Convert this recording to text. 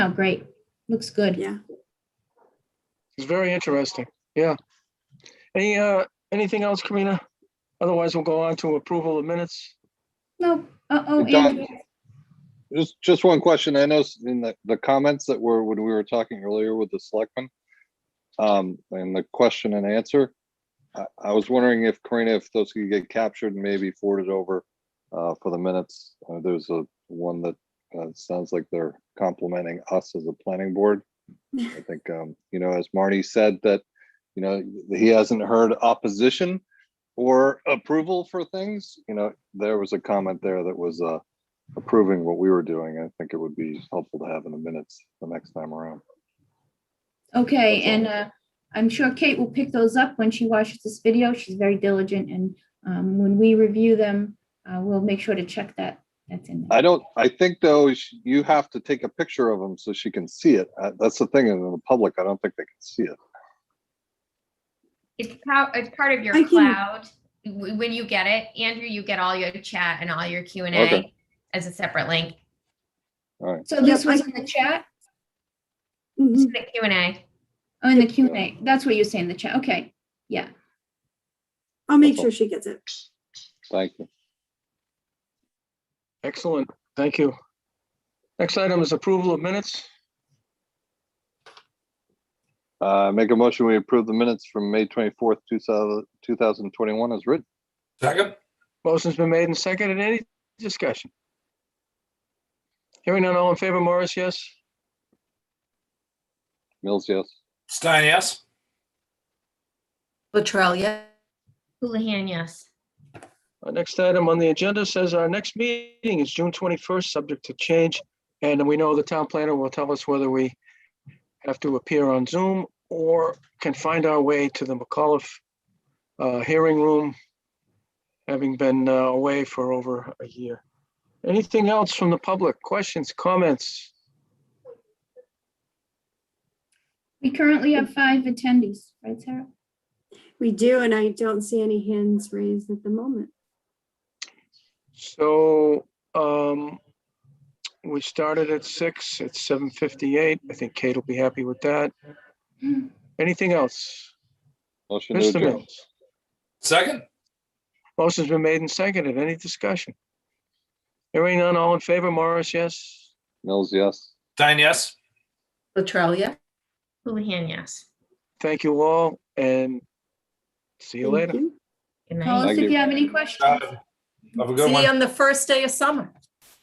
Oh, great. Looks good. Yeah. It's very interesting. Yeah. Any, uh, anything else, Karina? Otherwise, we'll go on to approval of minutes. No, uh-oh, Done. Andrew. Just, just one question. I noticed in the, the comments that were, when we were talking earlier with the selectmen, um, and the question and answer, I, I was wondering if Karina, if those could get captured and maybe forwarded over, uh, for the minutes. Uh, there's a one that, uh, sounds like they're complimenting us as a planning board. I think, um, you know, as Marty said, that, you know, he hasn't heard opposition or approval for things, you know, there was a comment there that was, uh, approving what we were doing, I think it would be helpful to have in the minutes the next time around. Okay, That's all. and uh, I'm sure Kate will pick those up when she watches this video. She's very diligent and um, when we review them, uh, we'll make sure to check that. That's in there. I don't, I think though, sh- you have to take a picture of them so she can see it. Uh, That's the thing, in the public, I don't think they can see it. It's part, it's part of I your can- cloud. W- When you get it, Andrew, you get all your chat and all your Q and A Okay. as a separate link. Mm-hmm. So this Yep, I- was in the chat, It's Mhm. The Q and A. oh, in the Q and A. That's what you're saying, the chat. Okay, yeah. I'll make sure she gets it. Thank you. Excellent. Thank you. Next item is approval of minutes. Uh, make a motion, we approve the minutes from May twenty-fourth, two thousand, two thousand twenty-one as written. Second, Motion's been made and seconded. Any discussion? Hearing none, all in favor, Morris, yes? Mills, yes. Stein, yes. Latrell, yes. Houlihan, yes. Our next item on the agenda says our next meeting is June twenty-first, subject to change. And we know the town planner will tell us whether we have to appear on Zoom or can find our way to the McAuliffe uh, hearing room, having been uh, away for over a year. Anything else from the public? Questions, comments? We currently have five attendees, right, Sarah? We do, and I don't see any hands raised at the moment. So um, we started at six, it's seven fifty-eight. I think Kate will be happy with that. Anything else? Motion to Mr. adjourn. Mills? Second, Motion's been made and seconded. Any discussion? Hearing none, all in favor, Morris, yes? Mills, yes. Stein, yes. Latrell, yes. Houlihan, yes. Thank you all and see you Thank later. you. Good Call night. us Thank if you. you have any questions. Uh, Have a good See one. you on the first day of summer.